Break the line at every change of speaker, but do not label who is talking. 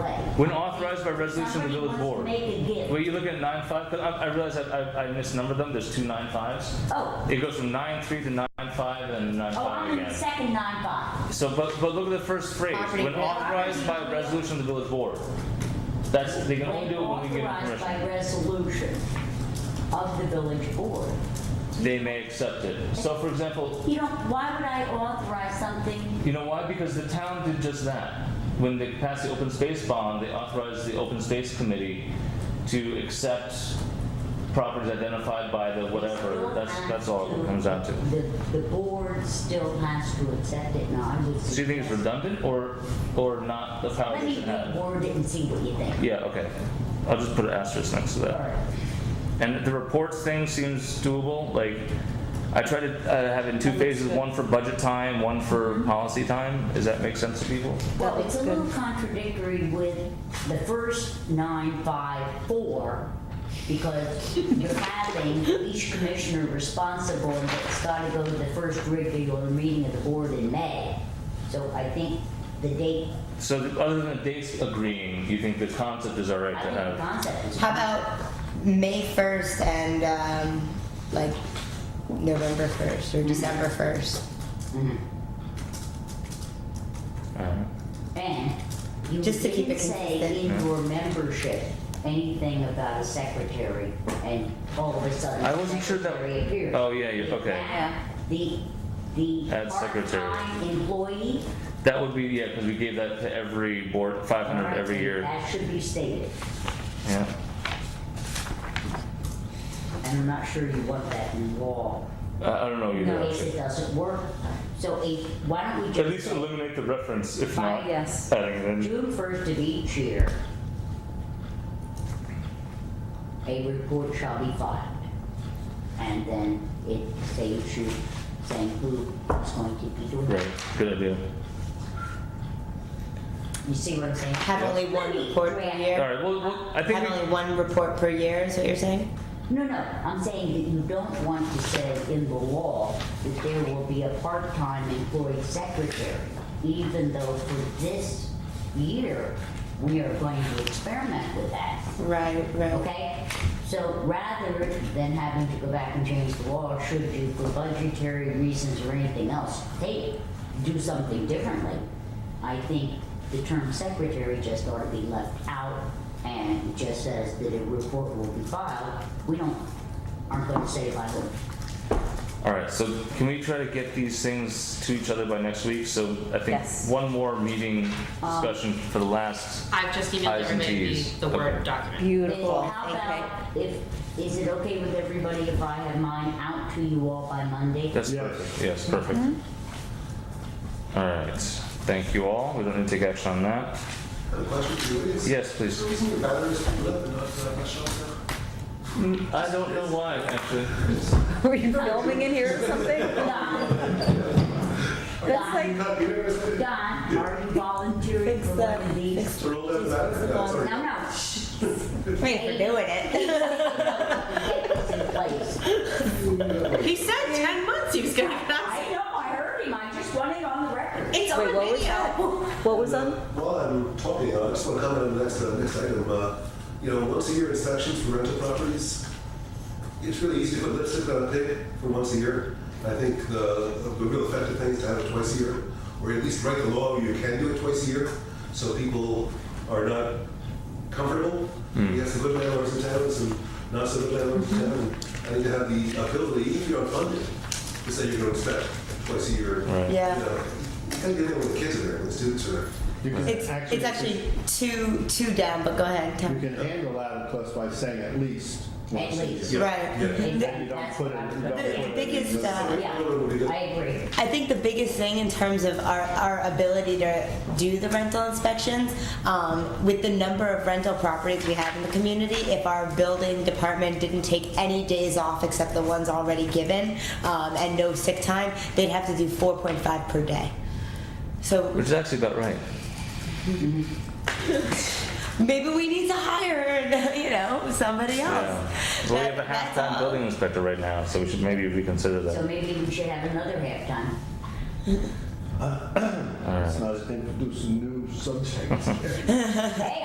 When authorized by resolution of the
Somebody
village
wants to
board.
make a gift.
Well, you look at nine five, because I, I realize I, I, I misnumbered them, there's two nine fives.
Oh.
It goes from nine three to nine five and nine
Oh,
five
I'm in the
again.
second nine five.
So, but, but look at the first phrase,
Property
when
bill.
authorized by resolution of the village board. That's, they can only do it when we get a
Authorized
commission.
by resolution of the village board.
They may accept it. So for example,
You know, why would I authorize something?
you know why? Because the town did just that. When they passed the open space bond, they authorized the open space committee to accept properties identified by the whatever,
Still
that's,
has
that's all it comes down to.
The, the board still has to accept it, now I would suggest.
So you think it's redundant or, or not the power
Let
that
me
should have?
reword it and see what you think.
Yeah, okay. I'll just put an asterisk next to
All
that.
right.
And the reports thing seems doable, like, I tried to uh, have it in two phases, one for budget time, one for policy time. Does that make sense to people?
Well,
That
it's a
looks
little contradictory with the first nine, five, four, because you're having each commissioner responsible, and it's gotta go to the first regular meeting of the board in May. So I think the date,
So the- other than the dates agreeing, you think the concept is all right
I
to
think the
have?
concept is.
How about May 1st and um, like November 1st or December 1st? Mm-hmm.
Mhm.
Alright.
And you
Just to keep
didn't
it
say
consistent.
in your membership anything about a secretary, and all of a sudden.
I wasn't sure that-
secretary appears.
Oh, yeah, you-
In
okay.
fact, The, the.
Add secretary.
Part-time employee.
That would be, yeah, because we gave that to every board, 500 every year.
That should be stated,
Yeah.
and I'm not sure you want that in law.
I I don't know either,
No, it
actually.
doesn't work, so if, why don't we
At
just
least
say
eliminate the reference, if
Fine,
not.
yes.
adding it in.
June first of each year, a report shall be filed. And then it says you, saying who is going to be doing
Right,
it.
good idea.
You see what I'm saying?
Have only one report per
All
year?
right, well, well, I think
Have
we
only one report per year is what you're saying?
No, no, I'm saying that you don't want to say in the law that there will be a part-time employee secretary, even though for this year, we are going to experiment with that.
Right, right.
Okay, so rather than having to go back and change the law, should you, for budgetary reasons or anything else, hey, do something differently, I think the term secretary just ought to be left out and it just says that a report will be filed. We don't, aren't gonna say by who.
All right, so can we try to get these things to each other by next week? So I think
Yes.
one more meeting discussion for the last,
I've just emailed
I's and
everybody
T's.
the
Okay.
Word document.
And
Beautiful.
how about if, is it okay with everybody if I have mine out to you all by Monday?
that's
Yes.
perfect, yes, perfect. All right, thank you all, we don't need to take action on that.
A question for you is,
Yes,
is
please.
there a reason your batteries blew up and not uh, not shot down?
I don't know why, actually.
Were you filming in here or something?
Don,
That's like,
Not even if it's-
Don, are you volunteering
fix
for
the,
one of these?
fix
Roll down the battery? No, sorry.
No, no.
Wait, we're doing it.
Get this in place.
He said 10 months he was going to get us.
I know, I heard him, I just want it on the record.
It's
Wait,
on
what was that?
video.
What was on?
While I'm talking, I just want to comment on the next, uh, next item. Uh, you know, once a year inspections for rental properties, it's really easy to put lipstick on a pig for once a year. I think the, the real effective thing is to have it twice a year, or at least write the law where you can do it twice a year, so people are not comfortable. We have some good landlords in towns and not so good landlords in town. and I need to have the ability, even if you're unfunded, to say you're going to inspect twice a year.
Right.
You
Yeah.
know, you gotta get there when the kids are there, when the students are there.
You can
It's,
actually,
it's actually two, two down, but go ahead.
you
Tom.
can handle that plus by saying at least once a
least.
year.
Right.
You don't put it, you don't put
The-
it.
the
in
biggest,
the-
uh,
Yeah, I agree.
I think the biggest thing in terms of our, our ability to do the rental inspections, um, with the number of rental properties we have in the community, if our building department didn't take any days off except the ones already given, um, and no sick time, they'd have to do four point five per day. So
Which is actually about right.
maybe we need to hire, you know, somebody
Yeah.
else.
Well, we
That-
have a
that's
half-time
all.
building inspector right now, so we should maybe reconsider
So
that.
maybe we should have another halftime.
All right.
It's not introducing new subjects.
Hey,